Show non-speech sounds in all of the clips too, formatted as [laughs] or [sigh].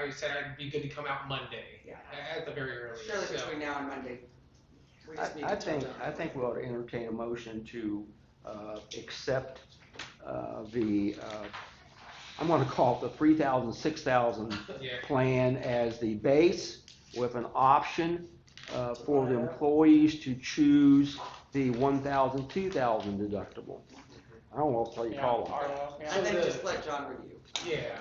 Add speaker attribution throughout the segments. Speaker 1: I said I'd be good to come out Monday
Speaker 2: Yeah.
Speaker 1: at the very early.
Speaker 2: Surely
Speaker 1: so-
Speaker 2: between now and Monday. We
Speaker 3: I,
Speaker 2: just need to
Speaker 3: I
Speaker 2: talk
Speaker 3: think,
Speaker 2: down.
Speaker 3: I think we ought to entertain a motion to, uh, accept, uh, the, uh, I'm gonna call it the three thousand, six thousand
Speaker 1: Yeah.
Speaker 3: plan as the base with an option, uh, for the employees to choose the one thousand, two thousand deductible.
Speaker 1: Mm-hmm.
Speaker 3: I don't know what you call them.
Speaker 2: Yeah,
Speaker 1: So
Speaker 2: I think
Speaker 1: the-
Speaker 2: just let John review.
Speaker 1: Yeah.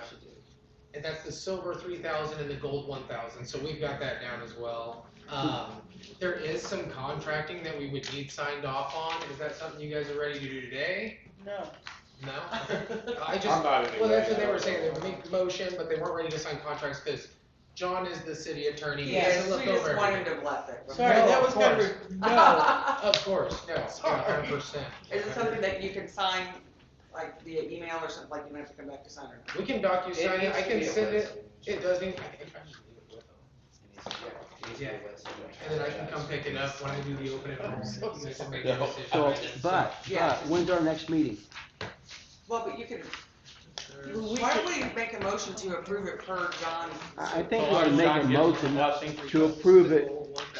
Speaker 1: And that's the silver three thousand and the gold one thousand, so we've got that down as well. Um, there is some contracting that we would need signed off on, is that something you guys are ready to do today? [laughs]
Speaker 4: No.
Speaker 2: [laughs]
Speaker 1: No? I
Speaker 5: I'm
Speaker 1: just,
Speaker 5: not in
Speaker 1: well, that's
Speaker 5: any
Speaker 1: what they
Speaker 5: way.
Speaker 1: were saying, they would make motion, but they weren't ready to sign contracts, cause John is the city attorney, he has
Speaker 2: Yes,
Speaker 1: to
Speaker 2: we
Speaker 1: look
Speaker 2: just
Speaker 1: over
Speaker 2: wanted
Speaker 1: everything.
Speaker 2: him left it.
Speaker 4: Sorry,
Speaker 1: No,
Speaker 4: that
Speaker 1: of
Speaker 4: was never, [laughs] no.
Speaker 1: Of course, no,
Speaker 4: Sorry.
Speaker 1: hundred percent.
Speaker 2: [laughs] Is it something that you can sign, like via email or something, like you might have to come back to sign or not?
Speaker 1: We can docu sign it, I can send it, it doesn't, Yeah. and then I can come pick it up when I do the open enrollment, you guys can make your
Speaker 5: No.
Speaker 1: decision.
Speaker 3: So, but, but,
Speaker 2: Yeah.
Speaker 3: when's our next meeting?
Speaker 2: Well, but you can,
Speaker 4: Well, we
Speaker 2: why
Speaker 4: could-
Speaker 2: don't we make a motion to approve it per John's?
Speaker 3: I, I think
Speaker 5: Well,
Speaker 3: we ought to
Speaker 5: I'm
Speaker 3: make
Speaker 5: not
Speaker 3: a
Speaker 5: getting
Speaker 3: motion
Speaker 5: nothing for
Speaker 3: to
Speaker 5: you.
Speaker 3: approve it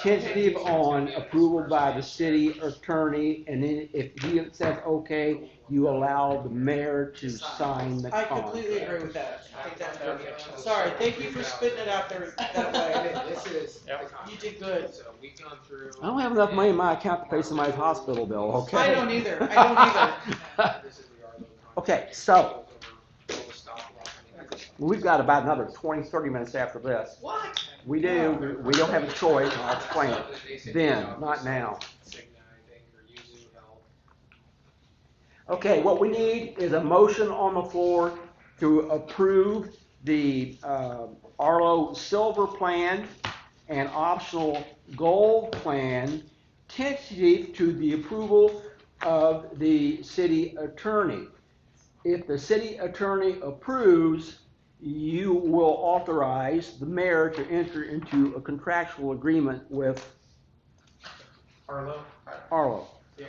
Speaker 3: tentative on approval by the city attorney, and then if he says okay, you allow the mayor to sign the
Speaker 4: I completely
Speaker 3: contract.
Speaker 4: agree with that.
Speaker 2: I think that's brilliant.
Speaker 4: Sorry, thank you for spitting it out there that way.
Speaker 1: This is.
Speaker 5: Yep.
Speaker 4: You did good.
Speaker 1: So we've gone through.
Speaker 3: I don't have enough money in my account to pay somebody's hospital bill, okay?
Speaker 4: I don't either, I don't either.
Speaker 1: This is the yard of the
Speaker 3: Okay,
Speaker 1: contract.
Speaker 3: so-
Speaker 1: We'll stop walking.
Speaker 3: [laughs] We've got about another 20, 30 minutes after this.
Speaker 2: What?
Speaker 3: We do, we don't have a choice, and I'll explain it. Then, not now.
Speaker 1: Cigna, I think, or Yuzu Health.
Speaker 3: Okay, what we need is a motion on the floor to approve the uh, Arlo Silver Plan and optional Gold Plan tentative to the approval of the city attorney. If the city attorney approves, you will authorize the mayor to enter into a contractual agreement with
Speaker 1: Harlow?
Speaker 3: Arlo.
Speaker 2: I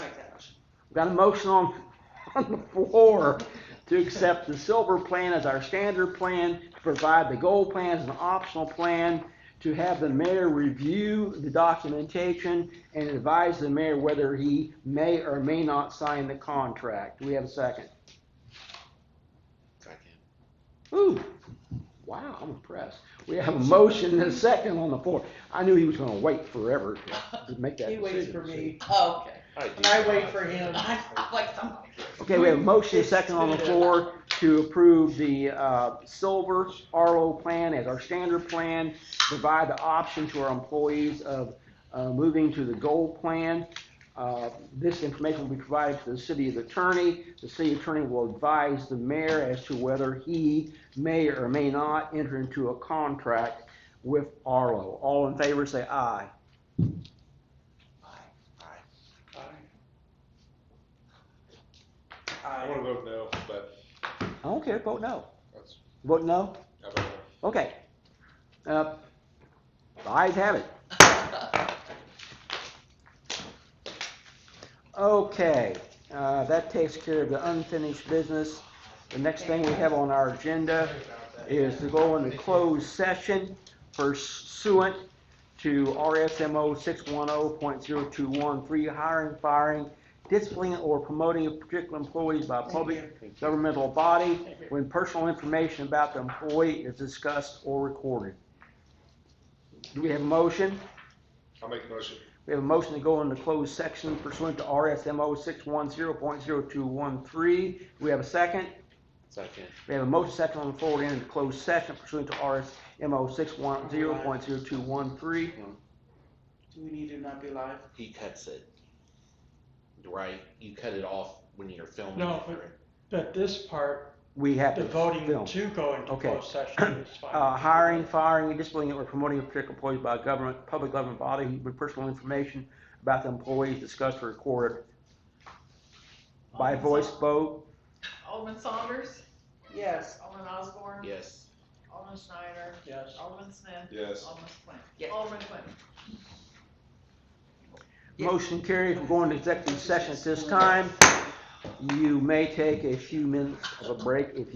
Speaker 2: make that motion.
Speaker 3: Got a motion on, [laughs] on the floor to accept the silver plan as our standard plan, to provide the gold plan as an optional plan, to have the mayor review the documentation and advise the mayor whether he may or may not sign the contract. Do we have a second? Ooh, wow, I'm impressed. We have a motion and a second on the floor. I knew he was gonna wait forever to- to make that
Speaker 4: He
Speaker 3: decision.
Speaker 4: waits for me,
Speaker 2: Oh, okay.
Speaker 4: and I wait for him.
Speaker 2: [laughs] I'm like somebody.
Speaker 3: Okay, we have a motion, a second on the floor to approve the, uh, silver RO plan as our standard plan. Provide the option to our employees of, uh, moving to the gold plan. Uh, this information will be provided to the city attorney. The city attorney will advise the mayor as to whether he may or may not enter into a contract with Arlo. All in favor, say aye.
Speaker 5: I wanna vote no, but
Speaker 3: I don't care, vote no.
Speaker 5: that's,
Speaker 3: Vote no?
Speaker 5: I don't know.
Speaker 3: Okay. Uh, the ayes have it.
Speaker 2: [laughs]
Speaker 3: Okay, uh, that takes care of the unfinished business. The next thing we have on our agenda is to go into closed session pursuant to RSMO six one oh point zero two one three, hiring, firing, disciplining, or promoting of particular employees by a public governmental body when personal information about the employee is discussed or recorded. Do we have a motion?
Speaker 5: I'll make a motion.
Speaker 3: We have a motion to go into closed section pursuant to RSMO six one zero point zero two one three. Do we have a second?
Speaker 6: Second.
Speaker 3: We have a motion second on the floor to enter into closed session pursuant to RSMO six one zero point zero two one three.
Speaker 4: Do we need to not be live?
Speaker 6: He cuts it. Right? You cut it off when you're filming.
Speaker 4: No,
Speaker 6: it,
Speaker 4: but-
Speaker 6: right?
Speaker 4: But this part,
Speaker 3: We have
Speaker 4: the
Speaker 3: to
Speaker 4: voting
Speaker 3: film.
Speaker 4: to go into
Speaker 3: Okay.
Speaker 4: closed session is fine.
Speaker 3: Uh, hiring, firing, and disciplining or promoting a particular employee by a government, public government body with personal information about the employees discussed or recorded by voice vote.
Speaker 7: Alderman Saunders,
Speaker 4: Yes.
Speaker 7: Alderman Osborne.
Speaker 6: Yes.
Speaker 7: Alderman Schneider,
Speaker 4: Yes.
Speaker 7: Alderman Smith,
Speaker 5: Yes.
Speaker 7: Alderman Flynn.
Speaker 2: Yeah.
Speaker 7: Alderman Flynn.
Speaker 2: Yeah.
Speaker 3: Motion carries. We're going to executive session at this time. You may take a few minutes of a break if